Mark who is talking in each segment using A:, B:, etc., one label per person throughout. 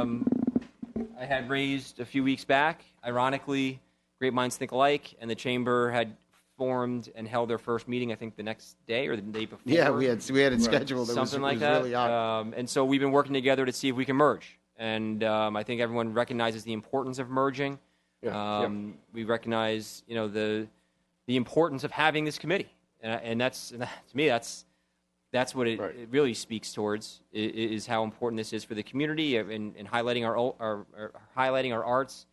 A: um, I had raised a few weeks back. Ironically, great minds think alike, and the chamber had formed and held their first meeting. I think the next day or the day before.
B: Yeah, we had we had it scheduled. It was-
A: something like
B: it was
A: that.
B: Really odd.
A: um, and so we've been working together to see if we can merge. And um, I think everyone recognizes the importance of merging.
C: Yeah.
A: Um, We recognize, you know, the the importance of having this committee, and, I- and that's and that, to me that's that's what it,
C: Right.
A: it really speaks towards i- i- is how important this is for the community and, and highlighting our, ol- our, our highlighting our arts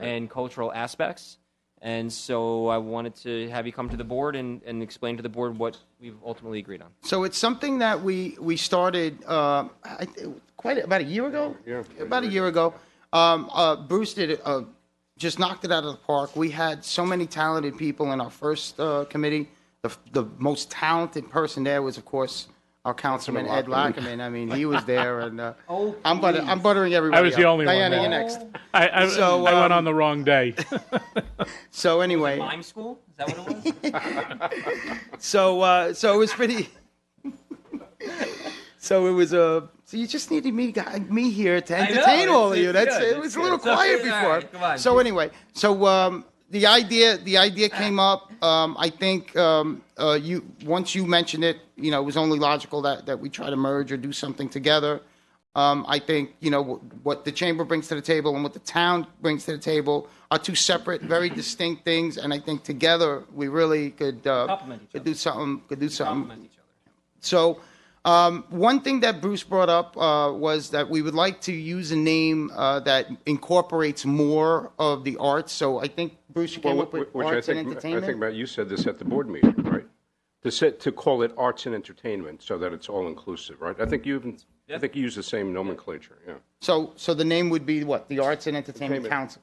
A: and cultural aspects. And so I wanted to have you come to the board and, and explain to the board what we've ultimately agreed on.
B: So it's something that we we started uh, I, th- quite about a year ago.
C: Yeah, yeah.
B: about a year ago. Um, uh, Bruce did uh, just knocked it out of the park. We had so many talented people in our first uh, committee. The the most talented person there was, of course, our councilman Ed Lockerman. I mean, he was there, and uh,
A: Oh,
B: I'm butter- I'm buttering everybody.
D: I was the
B: up.
D: only one
B: Diana,
D: there.
B: you're next.
D: I, I,
B: So,
D: I
B: um,
D: went on the wrong day.
B: So anyway,
A: Mime school? Is that what it was?
B: So uh, so it was pretty. so it was a. Uh, so you just needed me guy- me here to
A: know,
B: entertain
A: it's-
B: all of
A: it's
B: you. That's
A: good,
B: it was
A: it's
B: a little
A: good.
B: quiet
A: All right,
B: before.
A: come on.
B: So anyway, so um, the idea the idea came up. Um, I think um, uh, you once you mentioned it, you know, it was only logical that that we try to merge or do something together. Um, I think you know wh- what the chamber brings to the table and what the town brings to the table are two separate, very distinct things, and I think together we really could uh,
A: Complement each
B: could
A: other.
B: do something. Could do something.
A: Compliment each other.
B: So, um, one thing that Bruce brought up uh, was that we would like to use a name uh, that incorporates more of the arts. So I think Bruce you came
C: Well,
B: up with
C: wh- which I
B: arts and
C: think, I
B: entertainment.
C: think, Matt, you said this at the board meeting, right? To set, to call it arts and entertainment so that it's all-inclusive, right? I think you even, I think you use the same nomenclature, yeah.
B: so, so the name would be what the Arts and Entertainment
C: Entertainment.
B: Council.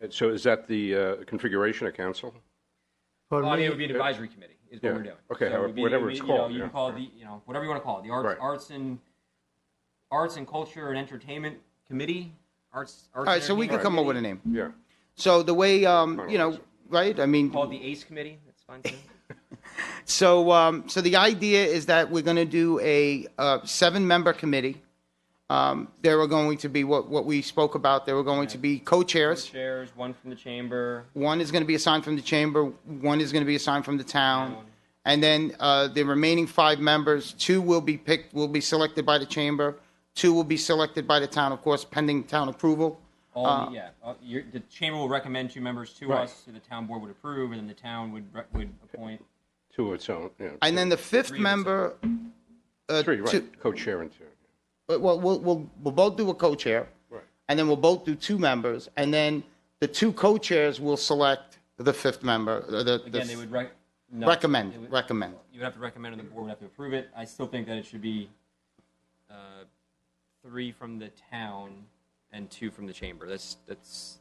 C: And so is that the uh, configuration of council?
A: Well, I mean, it would be an advisory committee is what
C: Yeah.
A: we're doing.
C: Okay,
A: it would be- it
C: whatever
A: would be,
C: it's
A: you know,
C: called,
A: You
C: yeah.
A: can call it the, you know, whatever you want to call it, the arts,
C: Right.
A: arts and arts and culture and entertainment committee. Arts, arts
B: All right, so we could come up with a name.
C: Yeah.
B: So the way um, you know, right? I mean,
A: Called the ACE committee. That's fine too.
B: So, um, so the idea is that we're going to do a uh, seven-member committee. Um, there are going to be what, what we spoke about. There were going to be co-chairs.
A: Chairs, one from the chamber.
B: One is going to be assigned from the chamber. One is going to be assigned from the town. And then uh, the remaining five members, two will be picked, will be selected by the chamber. Two will be selected by the town, of course, pending town approval.
A: All the, yeah, uh, your, the chamber will recommend two members to us, so the town board would approve, and then the town would re- would appoint.
C: To its own, yeah.
B: And then the fifth
A: Three of
B: member. uh,
C: Three,
B: two-
C: right, co-chair and two.
B: But well, we'll, we'll, we'll both do a co-chair.
C: Right.
B: And then we'll both do two members, and then the two co-chairs will select the fifth member, uh, the, the
A: Again, they would rec- no,
B: recommend,
A: they would-
B: recommend.
A: You would have to recommend, and the board would have to approve it. I still think that it should be uh, three from the town and two from the chamber. That's that's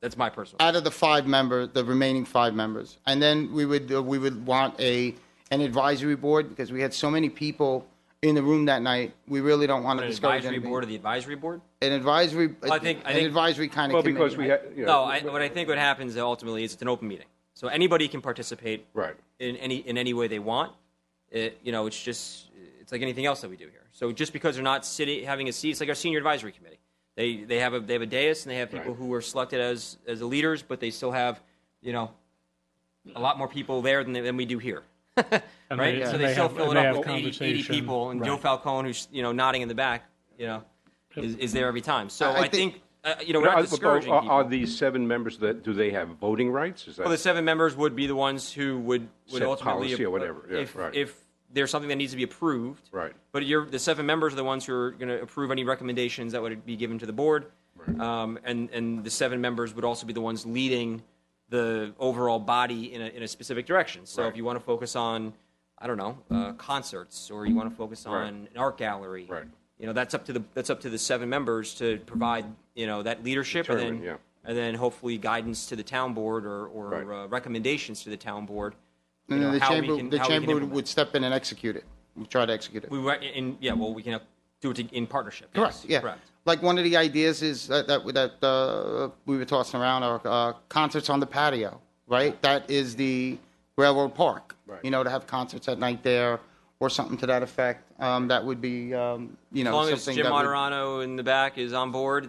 A: that's my personal.
B: Out of the five member, the remaining five members, and then we would, uh, we would want a, an advisory board, because we had so many people in the room that night, we really don't want
A: An
B: to discourage
A: advisory
B: anybody.
A: board of the advisory board.
B: An advisory,
A: I think- I
B: an
A: think-
B: advisory kind
C: Well,
B: of
C: because we
B: committee.
C: had, you
A: No,
C: know.
A: I, what I think what happens ultimately is it's an open meeting, so anybody can participate.
C: Right.
A: In any in any way they want. It, you know, it's just it's like anything else that we do here. So just because they're not sitting having a seat, it's like our senior advisory committee. They they have a they have a dais and they have people
C: Right.
A: who are selected as as the leaders, but they still have you know a lot more people there than than we do here. right,
D: they-
A: so
D: and
A: they,
D: they
A: still
D: have-
A: fill
D: and
A: it
D: they
A: up
D: have
A: with 80, 80
D: conversation.
A: people, and Joe
D: Right.
A: Falcone, who's you know nodding in the back, you know, is, is there every time. So I,
B: I think-
A: think, uh, you know we're
C: Are-
A: not
C: are-
A: discouraging
C: are-
A: people.
C: Are these seven members that, do they have voting rights? Is that?
A: Well, the seven members would be the ones who would, would
C: Set
A: ultimately
C: policy or
A: ap-
C: whatever. Yeah,
A: if,
C: right.
A: if there's something that needs to be approved.
C: Right.
A: But you're, the seven members are the ones who are going to approve any recommendations that would be given to the board. Um, and, and the seven members would also be the ones leading the overall body in a, in a specific direction. So if
C: Right.
A: you want to focus on, I don't know, uh, concerts or you want to focus on
C: Right.
A: an art gallery.
C: Right.
A: You know, that's up to the that's up to the seven members to provide you know that leadership and
C: Determine,
A: then
C: yeah.
A: and then hopefully guidance to the town board or, or
C: Right.
A: uh, recommendations to the town board. you
B: And then
A: know,
B: the
A: how we
B: chamber,
A: can-
B: the
A: how we can
B: chamber would-
A: implement.
B: would step in and execute it, We'd try to execute it.
A: We were in, yeah, well, we can do it in partnership.
B: Correct.
A: yes,
B: Yeah.
A: Correct.
B: Like one of the ideas is that that, that uh, we were tossing around are uh, concerts on the patio, right? That is the railroad park.
C: Right.
B: You know, to have concerts at night there, or something to that effect. Um, that would be, um, you know,
A: As long as
B: something
A: Jim
B: that would-
A: Moderano in the back is on board,